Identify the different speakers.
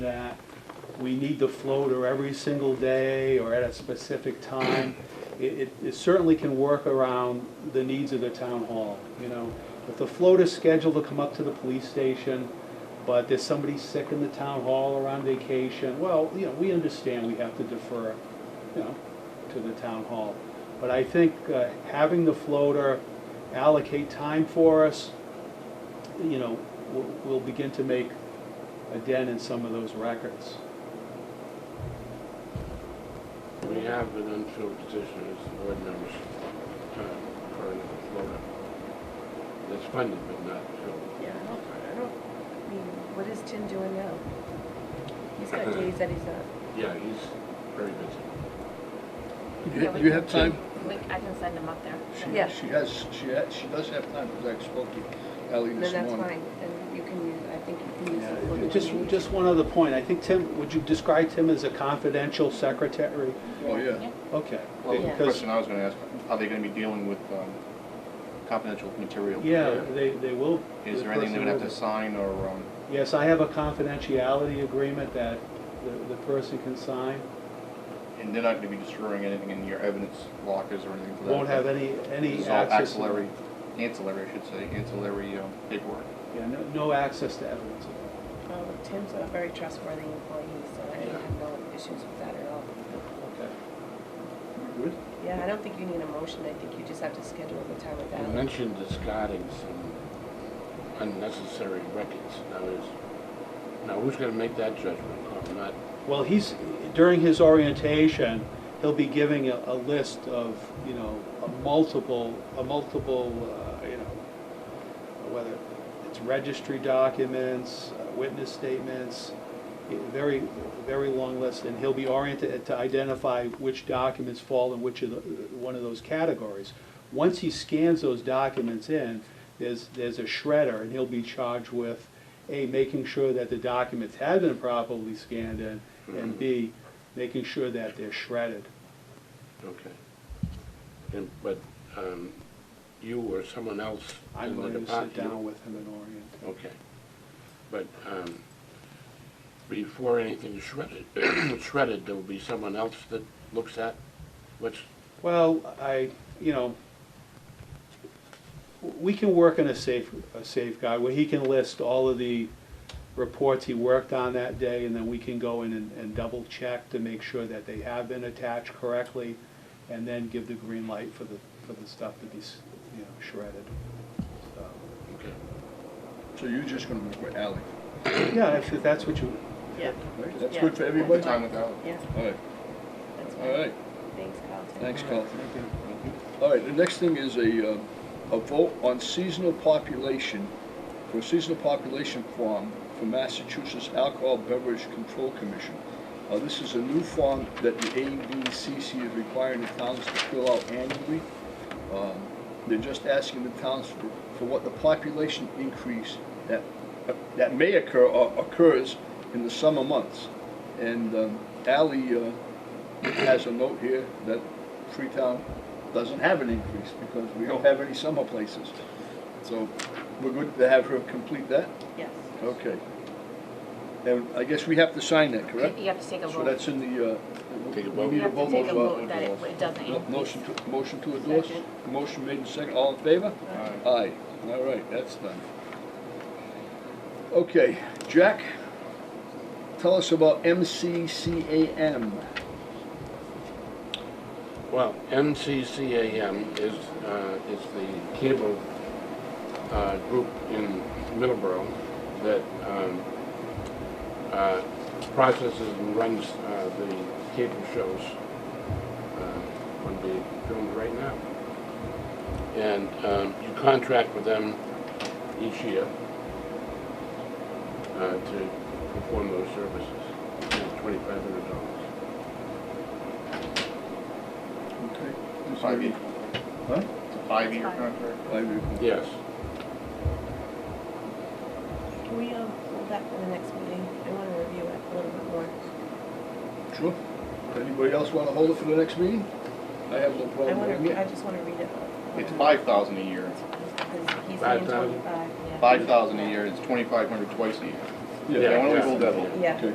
Speaker 1: that we need the floater every single day or at a specific time. It, it- it certainly can work around the needs of the town hall, you know. If the floater's scheduled to come up to the police station, but there's somebody sick in the town hall or on vacation, well, you know, we understand we have to defer, you know, to the town hall. But I think uh, having the floater allocate time for us, you know, we'll, we'll begin to make a dent in some of those records.
Speaker 2: We have an unfilled position as the board members, uh, for the Florida. That's funded but not filled.
Speaker 3: Yeah, I don't, I don't, I mean, what is Tim doing now? He's got days that he's not.
Speaker 2: Yeah, he's very busy.
Speaker 4: You you have time?
Speaker 5: We, I can send them up there.
Speaker 4: She-
Speaker 3: Yeah.
Speaker 4: She has, she has, she does have time, because I spoke to Ally
Speaker 3: Then
Speaker 4: this
Speaker 3: that's
Speaker 4: morning.
Speaker 3: fine, then you can use, I think you can use
Speaker 1: Yeah,
Speaker 3: the floater.
Speaker 1: Just, just one other point, I think Tim, would you describe Tim as a confidential secretary?
Speaker 4: Oh, yeah.
Speaker 1: Okay.
Speaker 6: Well, the
Speaker 1: because-
Speaker 6: question I was gonna ask, are they gonna be dealing with um, confidential material?
Speaker 1: Yeah, they, they will.
Speaker 6: Is
Speaker 1: the
Speaker 6: there anything they're gonna have
Speaker 1: person
Speaker 6: to sign or, um,
Speaker 1: will- Yes, I have a confidentiality agreement that the, the person can sign.
Speaker 6: and they're not gonna be destroying anything in your evidence lockers or anything for that?
Speaker 1: Won't have any,
Speaker 6: This
Speaker 1: any
Speaker 6: is all
Speaker 1: access.
Speaker 6: Ancillary, ancillary, I should say, ancillary um, paperwork.
Speaker 1: Yeah, no, no access to evidence.
Speaker 3: Um, Tim's a very trustworthy employee, so I have no issues with that at all.
Speaker 1: Okay.
Speaker 6: Good.
Speaker 3: Yeah, I don't think you need a motion, I think you just have to schedule the time with
Speaker 2: You
Speaker 3: that.
Speaker 2: mentioned discarding some unnecessary records. Now is, now who's gonna make that judgment? Oh, I'm not,
Speaker 1: Well, he's, during his orientation, he'll be giving a, a list of, you know, a multiple, a multiple, uh, you know, uh, whether it's registry documents, uh, witness statements, i- very, very long list, and he'll be oriented to identify which documents fall in which of the, one of those categories. Once he scans those documents in, there's, there's a shredder, and he'll be charged with, A, making sure that the documents have been properly scanned in, and B, making sure that they're shredded.
Speaker 2: okay. And, but, um, you or someone else
Speaker 1: I'm
Speaker 2: in the
Speaker 1: going to sit
Speaker 2: department.
Speaker 1: down with him and orient.
Speaker 2: Okay. But, um, before anything's shredded, shredded, there will be someone else that looks at what's
Speaker 1: Well, I, you know, we can work in a safe, a safeguard where he can list all of the reports he worked on that day, and then we can go in and, and double check to make sure that they have been attached correctly, and then give the green light for the, for the stuff to be, s- you know, shredded. So,
Speaker 2: Okay.
Speaker 4: So you're just gonna work with Ally,
Speaker 1: Yeah, if, if that's what you,
Speaker 3: Yeah,
Speaker 4: right? That's
Speaker 3: Yeah.
Speaker 4: good for everybody?
Speaker 6: Time with Ally.
Speaker 3: yeah,
Speaker 4: All right,
Speaker 3: that's
Speaker 4: all
Speaker 3: fine.
Speaker 4: right,
Speaker 3: Thanks, Carlton.
Speaker 4: thanks, Carl.
Speaker 1: thank you.
Speaker 4: All right, the next thing is a, uh, a vote on seasonal population, for a seasonal population form for Massachusetts Alcohol Beverage Control Commission. Uh, This is a new form that the ABCC is requiring the towns to fill out annually. Um, They're just asking the towns for, for what the population increase that, that may occur or occurs in the summer months. And um, Ally uh, has a note here that Freetown doesn't have an increase because we don't have any summer places. So we're good to have her complete that?
Speaker 3: Yes.
Speaker 4: Okay. And I guess we have to sign that, correct?
Speaker 5: You have to take a
Speaker 4: So
Speaker 5: vote.
Speaker 4: that's in the, uh,
Speaker 2: Take a
Speaker 4: we
Speaker 2: vote.
Speaker 4: need
Speaker 5: You
Speaker 4: a
Speaker 5: have to
Speaker 4: vote.
Speaker 5: take a
Speaker 4: motion.
Speaker 5: vote that it it doesn't
Speaker 4: No,
Speaker 5: increase.
Speaker 4: Motion to, motion to endorse?
Speaker 3: Second.
Speaker 4: Motion made in second, all in favor?
Speaker 6: Aye.
Speaker 4: Aye, all right, that's done. Okay, Jack, tell us about MCCAM.
Speaker 2: Well, MCCAM is, uh, is the cable, uh, group in Middleborough that, um, uh, processes and runs, uh, the cable shows, uh, on the filmed right now. And, um, you contract with them each year, uh, to perform those services, twenty-five hundred dollars.
Speaker 4: Okay.
Speaker 6: Five year,
Speaker 4: Huh?
Speaker 6: it's a five-year
Speaker 5: Five.
Speaker 6: contract.
Speaker 4: E. Five E. year.
Speaker 2: Yes.
Speaker 3: Can we, um, hold that for the next meeting? I wanna review it a little bit more.
Speaker 4: Sure. Anybody else want to hold it for the next meeting? I have no
Speaker 3: I
Speaker 4: problem with
Speaker 3: wanna, I
Speaker 4: it.
Speaker 3: just wanna read it.
Speaker 6: It's five thousand a year.
Speaker 3: Because he's
Speaker 2: Five
Speaker 3: saying
Speaker 2: thousand?
Speaker 3: twenty-five, yeah.
Speaker 6: Five thousand a year, it's twenty-five hundred twice a year.
Speaker 2: Yeah,
Speaker 6: Yeah, why don't we
Speaker 2: yeah.
Speaker 6: hold that one?
Speaker 3: Yeah.
Speaker 4: Okay.